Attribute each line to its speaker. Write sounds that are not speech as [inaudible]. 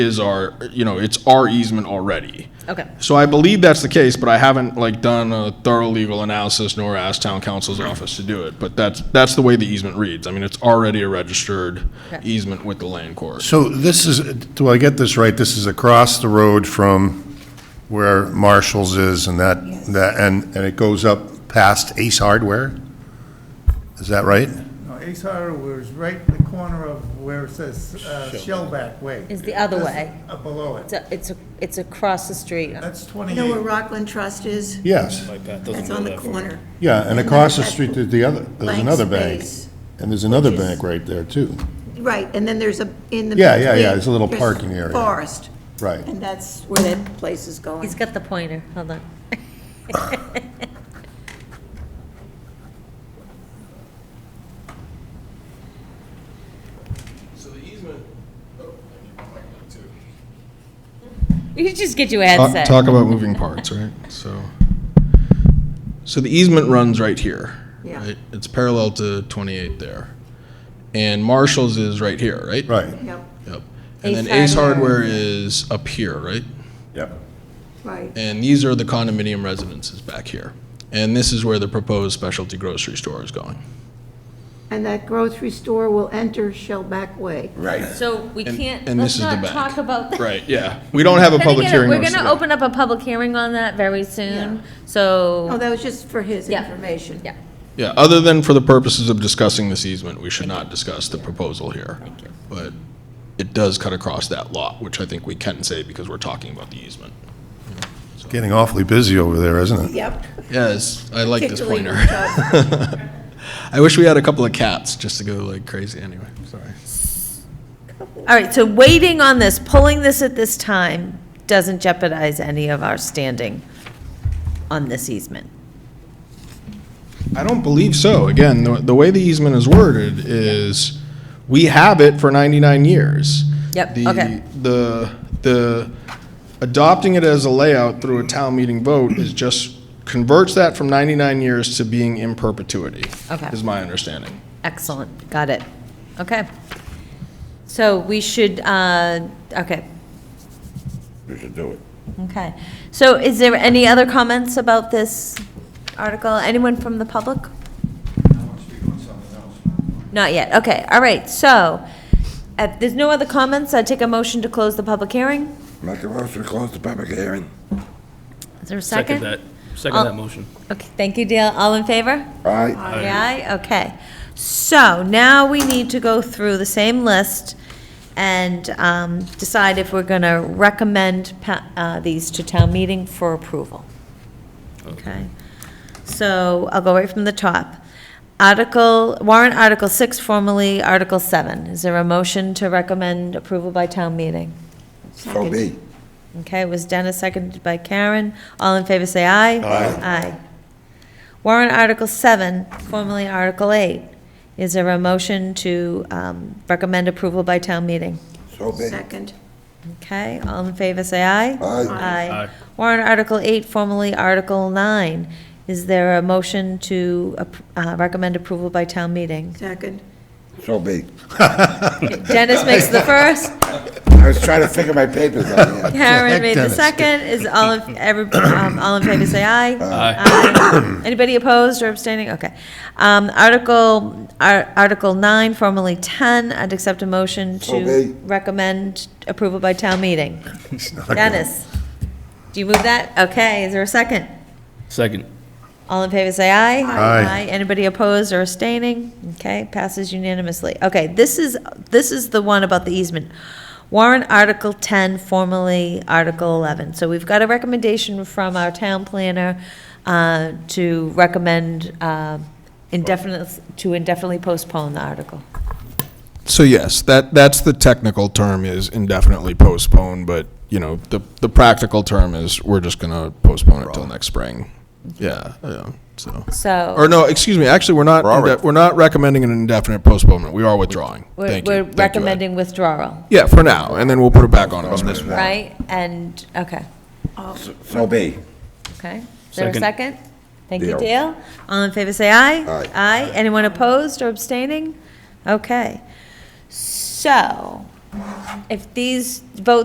Speaker 1: is our, you know, it's our easement already.
Speaker 2: Okay.
Speaker 1: So I believe that's the case, but I haven't like done a thorough legal analysis nor asked town council's office to do it. But that's, that's the way the easement reads. I mean, it's already a registered
Speaker 2: Okay.
Speaker 1: easement with the land court.
Speaker 3: So this is, do I get this right? This is across the road from where Marshall's is and that, that, and, and it goes up past Ace Hardware? Is that right?
Speaker 4: No, Ace Hardware was right in the corner of where it says uh, Shellback Way.
Speaker 2: Is the other
Speaker 4: This-
Speaker 2: way.
Speaker 4: uh, Below
Speaker 2: It's
Speaker 4: it.
Speaker 2: a- It's, a- it's across the street.
Speaker 4: That's
Speaker 5: You know where
Speaker 4: 28.
Speaker 5: Rockland Trust is?
Speaker 3: Yes,
Speaker 5: That's on the corner.
Speaker 3: yeah, and across the street, there's the other, there's
Speaker 5: Blank
Speaker 3: another bank.
Speaker 5: space.
Speaker 3: And there's another
Speaker 5: Which is-
Speaker 3: bank right there, too.
Speaker 5: Right, and then there's a, in the.
Speaker 3: Yeah, yeah, yeah,
Speaker 5: between,
Speaker 3: there's a little
Speaker 5: there's
Speaker 3: parking area.
Speaker 5: Forest,
Speaker 3: Right.
Speaker 5: and that's where that place is going.
Speaker 2: He's got the pointer, hold on.
Speaker 1: So the easement, oh,
Speaker 2: You should just get your headset.
Speaker 1: Talk about moving parts, right? So, so the easement runs right here.
Speaker 5: Yeah.
Speaker 1: right? It's parallel to 28 there. And Marshall's is right here, right?
Speaker 3: Right,
Speaker 5: Yep,
Speaker 1: Yep. And then
Speaker 2: Ace
Speaker 1: Ace
Speaker 2: Hardware.
Speaker 1: Hardware is up here, right?
Speaker 3: yep.
Speaker 5: right.
Speaker 1: And these are the condominium residences back here. And this is where the proposed specialty grocery store is going.
Speaker 5: And that grocery store will enter Shellback Way.
Speaker 3: Right.
Speaker 2: So we
Speaker 1: And-
Speaker 2: can't,
Speaker 1: and
Speaker 2: let's
Speaker 1: this is the
Speaker 2: not
Speaker 1: back.
Speaker 2: talk about that.
Speaker 1: Right, yeah. We don't have a
Speaker 2: Then
Speaker 1: public
Speaker 2: again,
Speaker 1: hearing.
Speaker 2: We're
Speaker 1: notice
Speaker 2: gonna
Speaker 1: today.
Speaker 2: open up a public hearing on that very soon,
Speaker 5: Oh,
Speaker 2: so,
Speaker 5: that was just for his
Speaker 2: Yeah.
Speaker 5: information.
Speaker 2: yeah,
Speaker 1: Yeah, other than for the purposes of discussing this easement, we should not discuss the proposal here.
Speaker 2: Thank you.
Speaker 1: But it does cut across that lot, which I think we can say because we're talking about the easement.
Speaker 3: It's getting awfully busy over there, isn't it? [laughs]
Speaker 5: Yep.
Speaker 1: Yes, I like this
Speaker 5: particularly
Speaker 1: pointer.
Speaker 5: with Chuck.
Speaker 1: [laughs] I wish we had a couple of cats just to go like crazy anyway, sorry.
Speaker 2: All right, so waiting on this, pulling this at this time doesn't jeopardize any of our standing on this easement.
Speaker 1: I don't believe so. Again, the, the way the easement is worded is, we have it for 99 years.
Speaker 2: Yep,
Speaker 1: The-
Speaker 2: okay.
Speaker 1: The, the, adopting it as a layout through a town meeting vote is just converts that from 99 years to being in perpetuity.
Speaker 2: Okay.
Speaker 1: Is my understanding.
Speaker 2: Excellent, got it. Okay. So we should, uh, okay. We should do it. Okay. So is there any other comments about this article? Anyone from the public? Not yet, okay, all right, so, if there's no other comments, I take a motion to close the public hearing?
Speaker 6: Make a motion to close the public hearing.
Speaker 2: Is there a second?
Speaker 7: Second that, second that motion.
Speaker 2: Okay, thank you, Dale. All in favor?
Speaker 6: Aye.
Speaker 2: Aye, okay. So now we need to go through the same list and um, decide if we're going to recommend pa- uh, these to town meeting for approval. Okay? So I'll go right from the top. Article, warrant Article 6, formerly Article 7. Is there a motion to recommend approval by town meeting?
Speaker 6: So be.
Speaker 2: Okay, it was Dennis, seconded by Karen. All in favor, say aye. Aye. Aye. Warrant Article 7, formerly Article 8. Is there a motion to um, recommend approval by town meeting?
Speaker 6: So be.
Speaker 5: Second,
Speaker 2: Okay, all in favor, say aye.
Speaker 6: Aye.
Speaker 2: Aye.
Speaker 7: Aye.
Speaker 2: Warrant Article 8, formerly Article 9. Is there a motion to ap- uh, recommend approval by town meeting?
Speaker 5: second.
Speaker 6: So be.
Speaker 2: Dennis makes the first,
Speaker 6: I was trying to figure my papers out here.
Speaker 2: Karen made the
Speaker 3: Dennis.
Speaker 2: second. Is all, in- every- um, all in favor, say aye.
Speaker 7: Aye.
Speaker 2: Aye. Anybody opposed or abstaining? Okay. Um, Article, Ar- Article 9, formerly 10, I'd accept a motion to
Speaker 6: Okay.
Speaker 2: recommend approval by town meeting.
Speaker 3: [laughs]
Speaker 2: Dennis, do you move that? Okay, is there a second?
Speaker 7: Second.
Speaker 2: All in favor, say aye.
Speaker 3: Aye.
Speaker 2: Anybody opposed or abstaining? Okay, passes unanimously. Okay, this is, this is the one about the easement. Warrant Article 10, formerly Article 11. So we've got a recommendation from our town planner uh, to recommend uh, indefinite, to indefinitely postpone the article.
Speaker 1: So yes, that, that's the technical term is indefinitely postponed, but, you know, the, the practical term is we're just gonna postpone it till next spring. Yeah, yeah, so. Or
Speaker 2: So
Speaker 1: no, excuse me, actually, we're not, inde- we're not recommending an indefinite postponement, we are withdrawing.
Speaker 2: we're
Speaker 1: Thank you.
Speaker 2: we're
Speaker 1: Thank you, Ed.
Speaker 2: recommending withdrawal,
Speaker 1: Yeah, for now, and then we'll put it back on at spring.
Speaker 2: right? And, okay.
Speaker 6: So be.
Speaker 2: Okay, is there a
Speaker 7: Second.
Speaker 2: second? Thank you,
Speaker 6: Deal.
Speaker 2: Dale. All in favor, say aye.
Speaker 6: Aye.
Speaker 2: anyone opposed or abstaining? Okay, so, if these votes